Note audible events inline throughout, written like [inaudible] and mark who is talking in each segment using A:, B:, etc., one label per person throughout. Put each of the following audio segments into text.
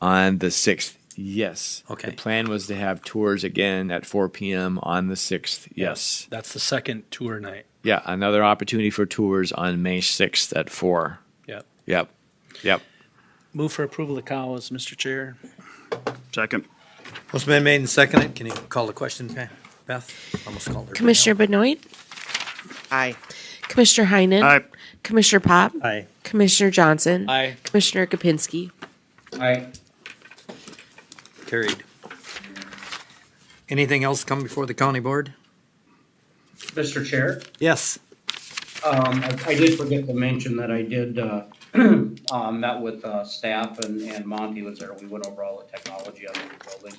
A: on the 6th. Yes.
B: Okay.
A: The plan was to have tours again at 4 p.m. on the 6th. Yes.
B: That's the second tour night.
A: Yeah. Another opportunity for tours on May 6th at 4.
B: Yep.
A: Yep. Yep.
B: Move for approval of CAWA's, Mr. Chair.
C: Second.
D: Motion been made and seconded. Can you call the question, Pa- Beth? Almost called her. but no.
E: Commissioner Benoit,
F: Aye.
E: Commissioner Heinen,
C: Aye.
E: Commissioner Pop,
D: Aye.
E: Commissioner Johnson,
B: Aye.
E: Commissioner Kapinski.
F: Aye.
D: Carried. Anything else come before the county board?
G: Mr. Chair,
D: Yes.
G: um, I I did forget to mention that I did, uh, [clears throat] uh, met with, uh, staff and, and Monty was there. We went over all the technology on the building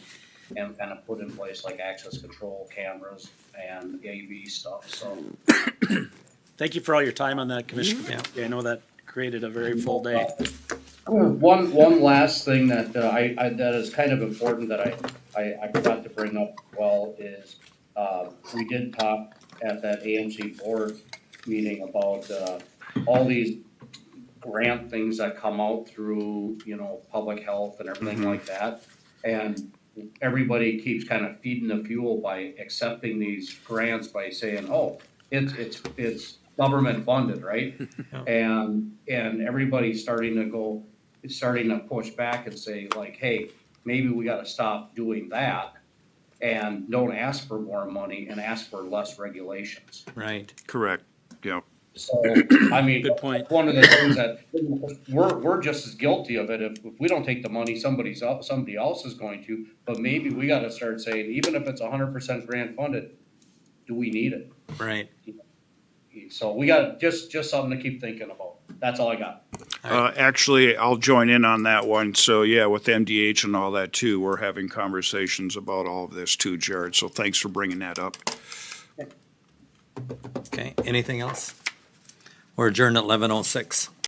G: and kind of put in place like access control cameras and AV stuff, so.
B: Thank you for all your time on that, Commissioner. Yeah, I know that created a very full day.
G: One, one last thing that uh, I, I, that is kind of important that I, I, I forgot to bring up well is, uh, we did talk at that AMC board meeting about, uh, all these grant things that come out through, you know, public health and everything like that. And everybody keeps kind of feeding the fuel by accepting these grants by saying, oh, it's, it's, it's government funded, right? And, and everybody's starting to go, is starting to push back and say like, hey, maybe we gotta stop doing that and don't ask for more money and ask for less regulations.
D: Right.
C: Correct. Yeah.
G: So, I mean,
B: Good point.
G: one of the things that, we're, we're just as guilty of it. If, if we don't take the money, somebody's, el- somebody else is going to. But maybe we gotta start saying, even if it's hundred percent grant funded, do we need it?
D: Right.
G: So we got, just, just something to keep thinking about. That's all I got.
C: Uh, actually, I'll join in on that one. So yeah, with MDH and all that too, we're having conversations about all of this too, Jared. So thanks for bringing that up.
D: Okay. Anything else? We're adjourned at eleven oh six.